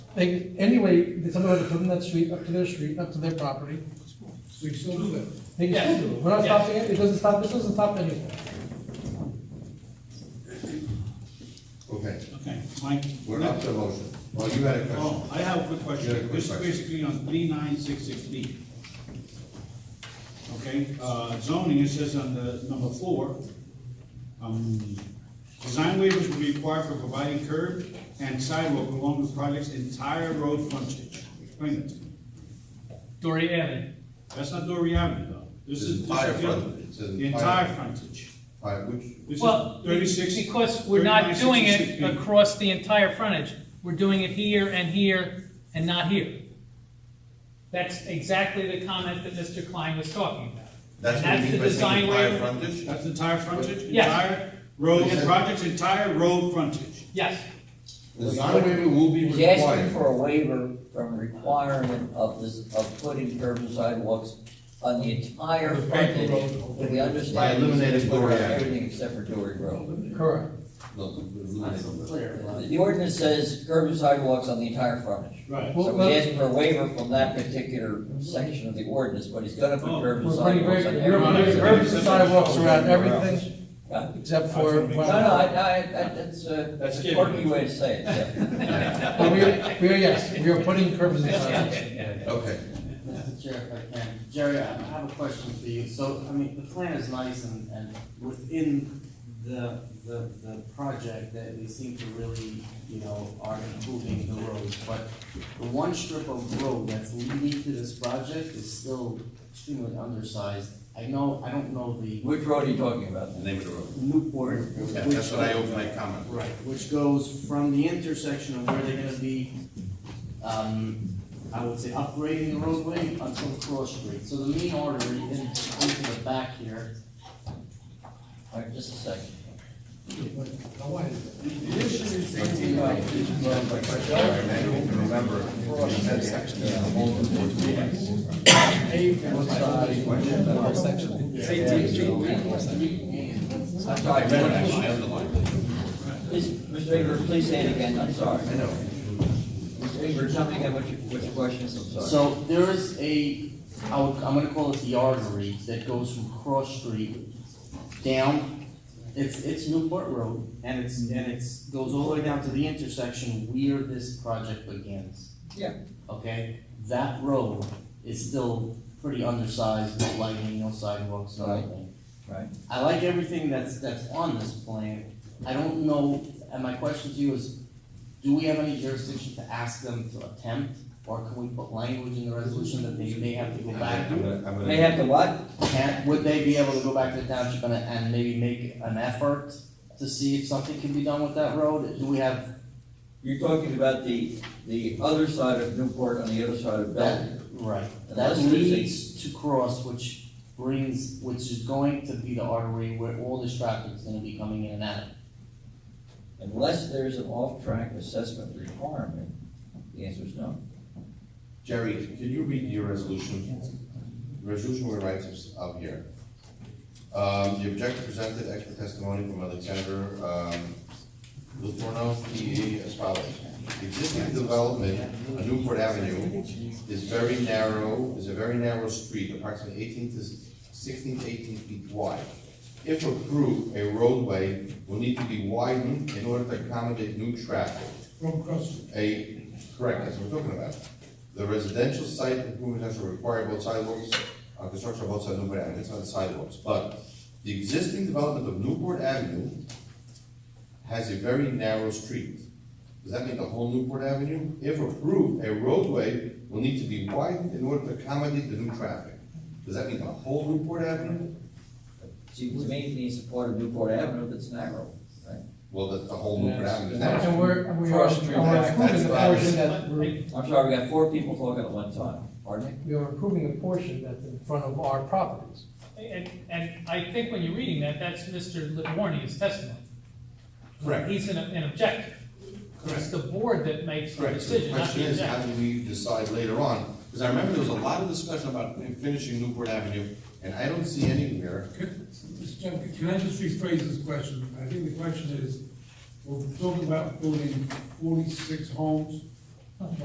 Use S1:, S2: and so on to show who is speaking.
S1: They, anyway, they somebody had to put in that street, up to their street, up to their property,
S2: We can still do that.
S1: they can still do it, we're not
S3: Yeah.
S1: stopping it, it doesn't stop, this doesn't stop anything.
S4: Okay,
S3: Okay, Mike?
S4: we're up to motion. Well, you had a question.
S3: Oh, I have a quick
S4: You had a
S3: question.
S4: quick
S3: This is
S4: question.
S3: basically on three nine six six B. Okay, uh, zoning, it says on the number four, um, design waivers will be required for providing curb and sidewalk along the project's entire road frontage. Explain it to me.
S5: Dory Avenue.
S3: That's not Dory Avenue though. This is.
S4: Entire
S3: this is the other-
S4: frontage. It's
S3: The
S4: entire-
S3: entire frontage.
S4: All right, which,
S3: This is
S5: Well,
S3: thirty-six.
S5: because we're not
S3: 39,
S5: doing
S3: 66
S5: it
S3: B.
S5: across the entire frontage. We're doing it here and here and not here. That's exactly the comment that Mr. Klein was talking about.
S4: that's what
S5: And
S4: you mean
S5: the
S4: by saying
S5: design
S4: entire
S5: waiver.
S4: frontage?
S3: That's entire frontage?
S5: Yes.
S3: Entire road,
S4: Yes.
S3: project's entire road frontage.
S5: Yes,
S4: Design waiver will be
S6: He's asking
S4: required.
S6: for a waiver from requirement of this, of putting curb and sidewalks on the entire
S2: The paper
S6: frontage,
S2: road.
S6: but we understand.
S4: By eliminating
S6: he's gonna put
S4: Dory
S6: on
S4: Avenue.
S6: Everything except for Dory Road.
S1: Correct.
S4: No, eliminate them.
S6: The ordinance says curb and sidewalks on the entire frontage.
S3: Right.
S1: Well,
S6: So
S1: well-
S6: he's asking for a waiver from that particular section of the ordinance, but he's gonna put curb and
S1: We're putting
S6: sidewalks on
S1: very, you're putting
S6: every.
S1: very sidewalks around everything,
S6: No,
S1: except for,
S6: no, I, I, I- that's a,
S3: That's
S6: that's a
S3: given.
S6: quirky way to say it, yeah.
S1: but we, are- we are, yes, we are putting curbs and sidewalks.
S4: Okay,
S7: Mr. Chair, if I can, Jerry, I I have a question for you. So, I mean, the plan is nice and, and within the, the, the project that they seem to really, you know, are improving the roads. But the one strip of road that's leading to this project is still extremely undersized. I know, I don't know the
S6: Which road are you talking about?
S4: the name of the road.
S7: Newport.
S4: Yeah,
S7: which-
S4: That's what I opened my comment. with.
S7: Right, which goes from the intersection of where they're gonna be, um, I would say upgrading the roadway until Cross Street. So the main artery in, into the back here,
S6: All right, just a second.
S2: Now, why is
S7: the the issue is.
S4: Remember, you said section.
S6: I'm sorry, Mr.
S4: I underlined it.
S6: Please, Mr. Ingber, please say it again, I'm sorry. I know. Mr. Ingber, jumping at what you, what your questions, I'm sorry.
S7: So there is a, I would, I'm gonna call it the artery that goes from Cross Street down. It's, it's Newport Road and it's,
S6: Mm-hmm.
S7: and it's, goes all the way down to the intersection where this project begins.
S6: Yeah.
S7: Okay, that road is still pretty undersized, no lighting, no sidewalks, no
S6: Right.
S7: nothing.
S6: Right.
S7: I like everything that's, that's on this plan. I don't know, and my question to you is, do we have any jurisdiction to ask them to attempt, or can we put language in the resolution that they may have to go back?
S4: I'm gonna, I'm
S6: They
S4: gonna,
S6: have to what?
S7: Can, would they be able to go back to the township and, and maybe make an effort to see if something can be done with that road? Do we have
S6: You're talking about the, the other side of Newport on the other side of
S7: that,
S6: Bellevue.
S7: right, that
S6: Unless there's a-
S7: leads to Cross, which brings, which is going to be the artery where all this traffic is gonna be coming in and out.
S6: Unless there's an off-track assessment requirement, the answer is no.
S4: Jerry, can you read your resolution? The Resolution where rights is up here. Um, the objector presented expert testimony from Alexander, um, Luthorno, P E, as follows. The Existing development on Newport Avenue is very narrow, is a very narrow street, approximately eighteen to 16 to 18 feet wide. If approved, a roadway will need to be widened in order to accommodate new traffic.
S2: From Cross Street.
S4: A, correct, that's what we're talking about. The residential site improvements are require both sidewalks, uh, construction of both sides of Newport Avenue, it's not sidewalks, but the existing development of Newport Avenue has a very narrow street. Does that mean the whole Newport Avenue? If approved, a roadway will need to be widened in order to accommodate the new traffic. Does that mean the whole Newport Avenue?
S6: Seems to me it needs support of Newport Avenue that's narrow.
S4: Well, that's the whole Newport Avenue is narrow.
S1: And we're, and we are, and we're approving the portion that, we're-
S6: I'm sorry, we got four people talking at one time, pardon me?
S1: we are approving a portion that's in front of our properties.
S5: and, and I think when you're reading that, that's Mr. Litwornia's testimony.
S4: Correct.
S5: He's an, an objector. It's the board that makes the
S4: Correct, so the
S5: decision, not
S4: question
S5: the
S4: is, how
S5: objector.
S4: do we decide later on? Because I remember there was a lot of discussion about finishing Newport Avenue, and I don't see anywhere,
S2: Mr. Chairman, can I just rephrase this question? I think the question is, we're talking about building forty-six homes